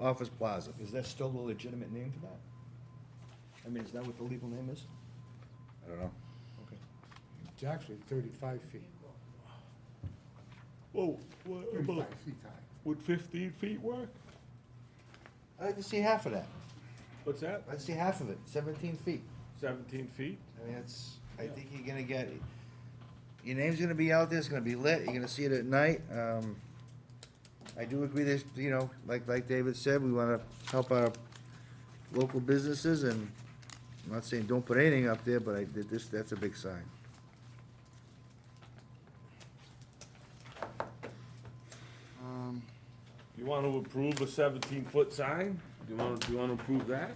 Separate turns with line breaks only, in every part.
Office Plaza.
Is that still the legitimate name for that? I mean, is that what the legal name is?
I don't know.
Okay.
It's actually thirty-five feet,
Well, what about,
thirty-five feet high.
would fifteen feet work?
I'd like to see half of that.
What's that?
I'd see half of it, seventeen feet.
Seventeen feet?
I mean, that's, I think you're gonna get, your name's gonna be out there, it's gonna be lit, you're gonna see it at night. Um, I do agree that, you know, like, like David said, we wanna help our local businesses and I'm not saying don't put anything up there, but I did this, that's a big sign. Um,
You wanna approve a seventeen-foot sign? Do you wanna, do you wanna approve that?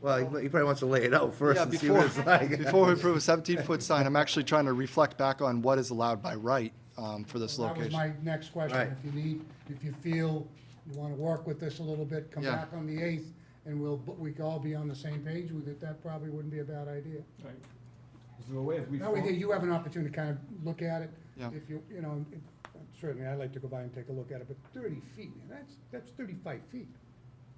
Well, he he probably wants to lay it out first
Yeah,
and see what it's
before-
like.
Before we approve a 17-foot sign, I'm actually trying to reflect back on what is allowed by right um, for this
That was
location.
my next question.
Right.
If you need, if you feel you want to work with this a little bit, come
Yeah.
back on the eighth, and we'll, but we could all be on the same page with it. That probably wouldn't be a bad idea.
Is there a way if we,
That way, there
form-
you have an opportunity to kind of look at it.
Yeah.
If you, you know, it- certainly, I'd like to go by and take a look at it, but thirty feet, man, that's, that's thirty-five feet.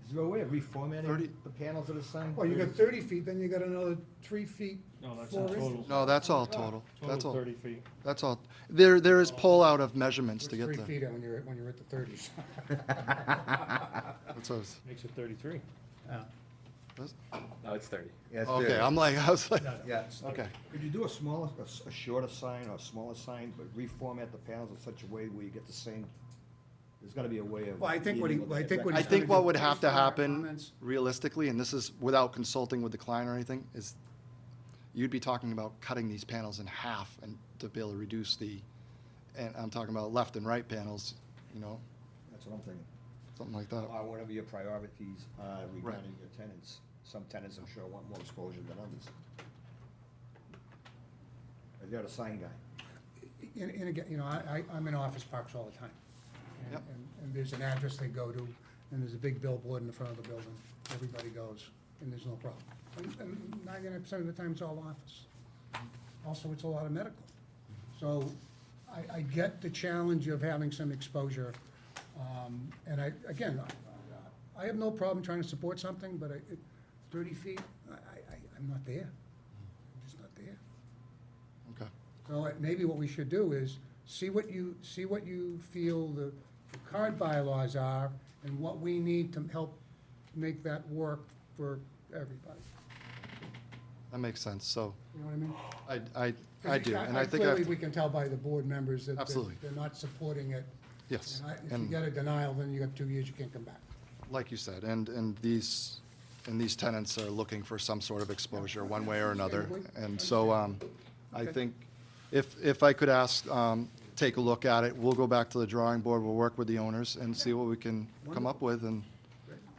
is there a way of
Thirty-
reformatting the panels of the sign?
Well, you got thirty feet, then you got another three feet.
No, that's in
four inches.
total.
No, that's all total. That's
Total
all,
thirty feet.
that's all. There, there is pull-out of measurements to
It's
get
Three
there.
feet when you're, when you're at the thirties.
That's what I was-
Makes it thirty-three.
that's-
No, it's 30.
Yeah, it's
Okay,
there.
I'm like, I was like,
Yeah.
okay.
Could you do a smaller, a s- a shorter sign or a smaller sign, but reformat the panels in such a way where you get the same, there's gotta be a way of.
Well, I think what he-
meeting
well, I think what
I
he's
think
gonna
what
do-
would have to
based on our
happen
comments-
realistically, and this is without consulting with the client or anything, is you'd be talking about cutting these panels in half and to be able to reduce the, and I'm talking about left and right panels, you know,
That's what I'm thinking.
something like that.
Or whatever your priorities are regarding your tenants. Some tenants, I'm sure, want more exposure than others. If You're the sign guy.
And, and again, you know, I, I, I'm in office parks all the time. And-
Yep.
and- And there's an address they go to, and there's a big billboard in the front of the building, everybody goes, and there's no problem. And- And ninety-nine percent of the time, it's all office. Also, it's a lot of medical. So I, I get the challenge of having some exposure. Um, and I, again, I, I have no problem trying to support something, but I, it- thirty feet, I, I, I'm not there. I'm just not there.
Okay.
So it- maybe what we should do is, see what you, see what you feel the the current bylaws are, and what we need to help make that work for everybody.
That makes sense. So
You know what I mean?
I, I, I do, and I think I
Clearly,
have
we
to,
can tell by the board members that they're-
Absolutely.
they're not supporting it.
yes.
And I- If you
And
get a denial, then you got two years, you can't come back.
like you said, and, and these, and these tenants are looking for some sort of exposure, one way or another.
Understandably.
And so, um, I think if, if I could ask, um, take a look at it, we'll go back to the drawing board, we'll work with the owners and see what we can come up with and,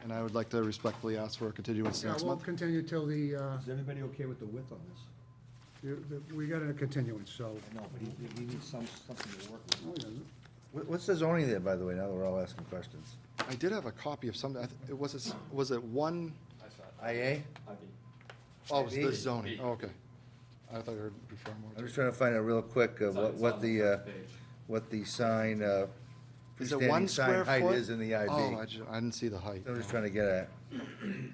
and I would like to respectfully ask for a continuance
Yeah,
next
we'll
month.
continue till the, uh,
Is everybody okay with the width on this?
you- the- we got a continuance, so.
I know, but he- he needs some, something to work with.
Oh, yeah,
What- What's the zoning there, by the way, now that we're all asking questions?
I did have a copy of some, I th- it was, a s- was it one,
IA?
oh, it was the
Maybe.
zoning, oh, okay. I thought I heard before more.
I'm just trying to find out real quick uh, what, what the, uh, what the sign, uh,
Is it one
freestanding sign
square foot?
height is in the IB.
Oh, I ju- I didn't see the height.
I'm just trying to get at.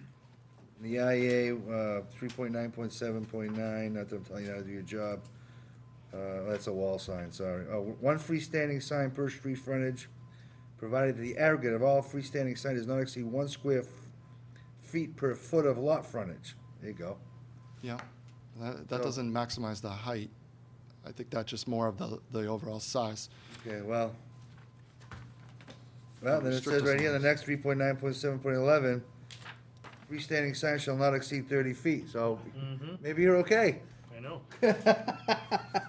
The IA, uh, three point nine point seven point nine, not that I'm telling you how to do your job. Uh, that's a wall sign, sorry. Oh, one freestanding sign per street frontage, provided the aggregate of all freestanding sign does not exceed one square f- feet per foot of lot frontage. There you go.
Yeah, that, that
So-
doesn't maximize the height. I think that's just more of the, the overall size.
Okay, well. Well, then it
Restrict
says right
us
here, the
on
next three point nine point seven point eleven, freestanding sign shall not exceed thirty feet, so maybe you're okay.
I know.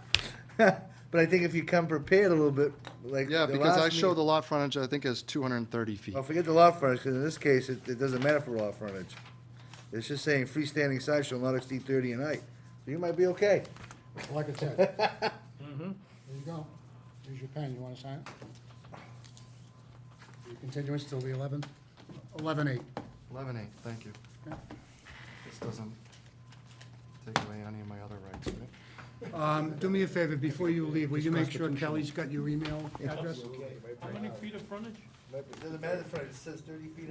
But I think if you come prepared a little bit, like.
Yeah,
the
because
last
I show the
meeting-
lot frontage, I think, is two hundred and thirty feet.
Well, forget the lot frontage, because in this case, it, it doesn't matter for lot frontage. It's just saying freestanding sign shall not exceed thirty in height, so you might be okay.
Like I said. Mm-hmm. There you go. Here's your pen. You want to sign it? Your continuance till the 11th, 11/8.
Eleven eight, thank you.
Yeah.
This doesn't take away any of my other rights, right?
Um, Do me a favor, before you leave, will you make sure Kelly's got your email address?
How many feet of frontage?
Doesn't matter the frontage, it says thirty feet